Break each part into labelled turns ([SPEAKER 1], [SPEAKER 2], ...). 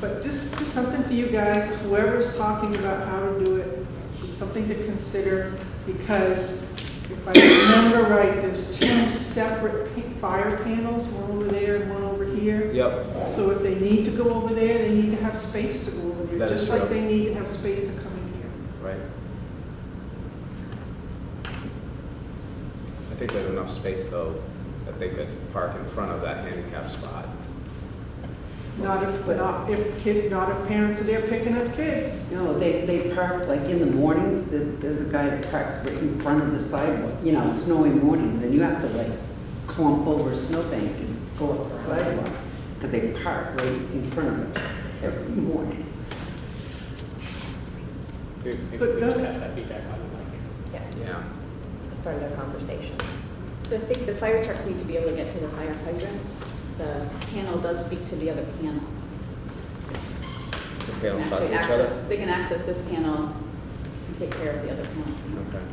[SPEAKER 1] But just, just something for you guys, whoever's talking about how to do it, just something to consider, because if I remember right, there's two separate pa- fire panels, one over there and one over here.
[SPEAKER 2] Yep,
[SPEAKER 1] So if they need to go over there, they need to have space to go over there,
[SPEAKER 2] That is
[SPEAKER 1] just like
[SPEAKER 2] true.
[SPEAKER 1] they need to have space to come in here.
[SPEAKER 2] right. I think there's enough space, though, that they could park in front of that handicap spot.
[SPEAKER 1] Not if, not if kid, not if parents are there picking up kids.
[SPEAKER 3] No, they, they park, like in the mornings, there- there's a guy that parks right in front of the sidewalk, you know, snowy mornings, and you have to like clump over a snowbank to go up the sidewalk, because they park right in front of it every morning.
[SPEAKER 2] Here,
[SPEAKER 4] Hmm.
[SPEAKER 5] Maybe
[SPEAKER 1] So
[SPEAKER 5] we just
[SPEAKER 1] that-
[SPEAKER 5] pass that feedback on to Mike.
[SPEAKER 6] Yeah,
[SPEAKER 2] Yeah,
[SPEAKER 6] as part of their conversation.
[SPEAKER 4] So I think the fire trucks need to be able to get to the higher hydrants. The panel does speak to the other panel.
[SPEAKER 2] the
[SPEAKER 4] They can
[SPEAKER 2] panels talk to
[SPEAKER 4] actually
[SPEAKER 2] each
[SPEAKER 4] access.
[SPEAKER 2] other.
[SPEAKER 4] They can access this panel and take care of the other panel.
[SPEAKER 2] Okay.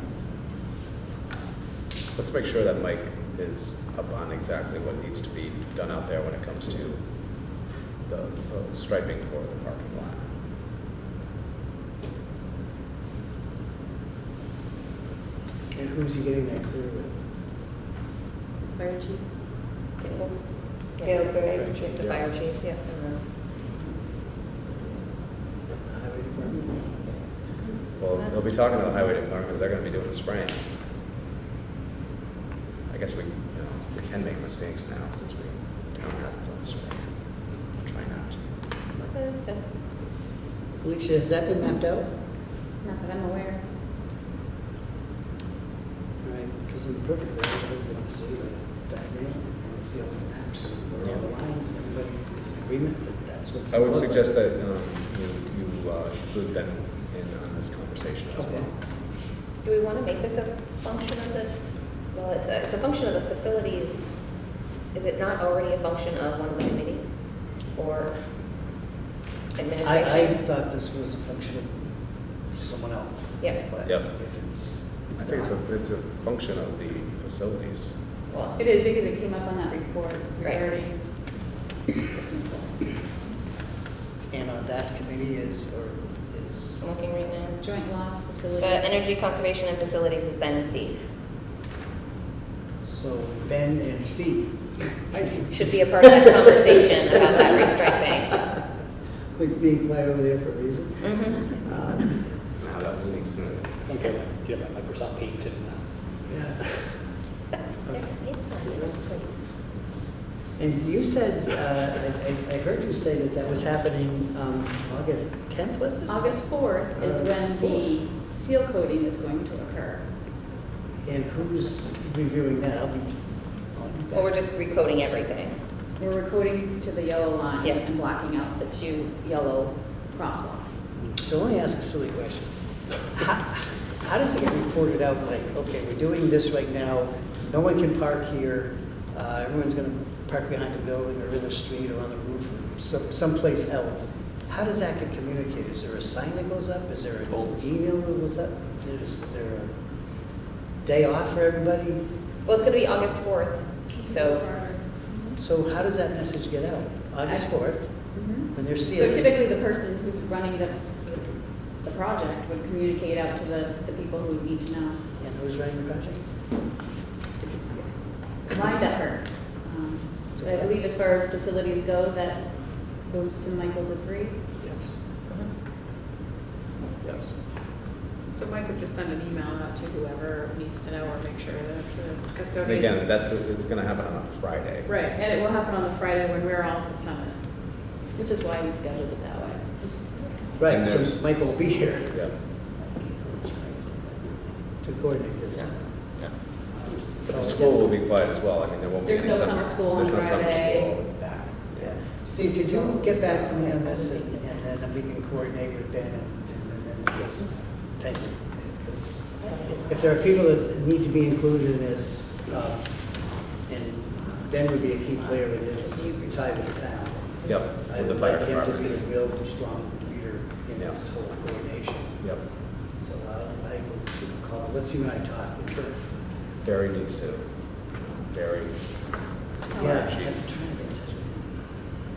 [SPEAKER 2] Let's make sure that Mike is up on exactly what needs to be done out there when it comes to the the striping for the parking lot.
[SPEAKER 7] And who's he getting that clear with?
[SPEAKER 4] Fire chief?
[SPEAKER 6] Caleb Gray,
[SPEAKER 2] Right,
[SPEAKER 6] the
[SPEAKER 2] yeah.
[SPEAKER 6] fire chief, yeah. and, uh,
[SPEAKER 7] The highway department?
[SPEAKER 2] Well, they'll be talking to the highway department, they're gonna be doing the spraying. I guess we, you know, we can make mistakes now since we don't have its own spray. Try not to.
[SPEAKER 6] okay.
[SPEAKER 3] Alicia, has that been mapped out?
[SPEAKER 4] Not that I'm aware.
[SPEAKER 7] Right, because in the perfect world, everybody would see the diagram, and see all the maps and where all the lines, and everybody's in agreement that that's what's.
[SPEAKER 2] I would
[SPEAKER 7] supposed to-
[SPEAKER 2] suggest that um, you you, uh, include them in on this conversation as well.
[SPEAKER 6] Do we want to make this a function of the, well, it's a, it's a function of the facilities. Is it not already a function of one of the committees or administration?
[SPEAKER 7] I, I thought this was a function of someone else.
[SPEAKER 6] Yeah.
[SPEAKER 7] But
[SPEAKER 2] Yep.
[SPEAKER 7] if it's.
[SPEAKER 2] I think it's
[SPEAKER 7] not-
[SPEAKER 2] a, it's a function of the facilities.
[SPEAKER 6] Well,
[SPEAKER 4] It is because it came up on that report regarding this and stuff.
[SPEAKER 7] And on that committee is, or is,
[SPEAKER 6] I'm looking right now.
[SPEAKER 4] Joint loss facilities.
[SPEAKER 6] The energy conservation and facilities is Ben and Steve.
[SPEAKER 7] so Ben and Steve.
[SPEAKER 6] Should be a part of that conversation about that restriping.
[SPEAKER 7] Like being quiet over there for a reason.
[SPEAKER 6] Mhm.
[SPEAKER 7] Um,
[SPEAKER 2] Now that meeting's gonna.
[SPEAKER 5] Okay, like, do you have that Microsoft Paint and uh,
[SPEAKER 7] Yeah. Okay.
[SPEAKER 6] Yeah.
[SPEAKER 7] And you said, uh, I- I I heard you say that that was happening um, August 10th, was it?
[SPEAKER 4] August 4th is when
[SPEAKER 7] August
[SPEAKER 4] the seal coating is going to occur.
[SPEAKER 7] And who's reviewing that? I'll be. I'll be back.
[SPEAKER 6] Well, we're just recoding everything.
[SPEAKER 4] We're recording to the yellow line
[SPEAKER 6] Yeah.
[SPEAKER 4] and blocking out the two yellow crosswalks.
[SPEAKER 7] So let me ask a silly question. How how does it get reported out, like, okay, we're doing this right now, no one can park here, uh, everyone's going to park behind a building or in the street or on the roof or some- someplace else? How does that get communicated? Is there a sign that goes up? Is there an email that goes up? Is there a day off for everybody?
[SPEAKER 6] Well, it's gonna be August fourth, so,
[SPEAKER 7] So how does that message get out? August 4th,
[SPEAKER 4] Mhm.
[SPEAKER 7] when they're
[SPEAKER 4] So
[SPEAKER 7] sealed?
[SPEAKER 4] typically, the person who's running the, the project would communicate out to the, the people who need to know.
[SPEAKER 7] And who's running the project?
[SPEAKER 4] It's Lined effort. Um, so I believe as far as facilities go, that goes to Michael Dupree.
[SPEAKER 5] yes.
[SPEAKER 6] Mm-hmm.
[SPEAKER 2] Yes.
[SPEAKER 8] So Mike would just send an email out to whoever needs to know or make sure that the
[SPEAKER 2] And
[SPEAKER 8] custodians.
[SPEAKER 2] again, that's, it's gonna happen on a Friday.
[SPEAKER 8] Right, and it will happen on the Friday when we're all at the summit.
[SPEAKER 4] Which is why we scheduled it that way.
[SPEAKER 7] Right,
[SPEAKER 2] And
[SPEAKER 7] so
[SPEAKER 2] there's-
[SPEAKER 7] Michael will be here.
[SPEAKER 2] Yeah.
[SPEAKER 7] to coordinate this.
[SPEAKER 2] But the school will be quiet as well, I mean, there won't be.
[SPEAKER 4] There's
[SPEAKER 2] any
[SPEAKER 4] no summer school on
[SPEAKER 2] There's no summer
[SPEAKER 4] Friday.
[SPEAKER 2] school.
[SPEAKER 7] Yeah. Steve, could you get back to me on this and and then we can coordinate with Ben and and then, just thank you. Because If there are people that need to be included in this, uh, and Ben would be a key player in this, tied to the town.
[SPEAKER 2] Yep,
[SPEAKER 7] I
[SPEAKER 2] with the
[SPEAKER 7] would
[SPEAKER 2] fire
[SPEAKER 7] like him to be a
[SPEAKER 2] department.
[SPEAKER 7] real strong leader in this whole coordination.
[SPEAKER 2] Yep,
[SPEAKER 7] So uh, I will call, let's you and I talk.
[SPEAKER 2] Barry needs to, Barry,
[SPEAKER 7] Yeah, I'm
[SPEAKER 2] Chief.
[SPEAKER 7] trying to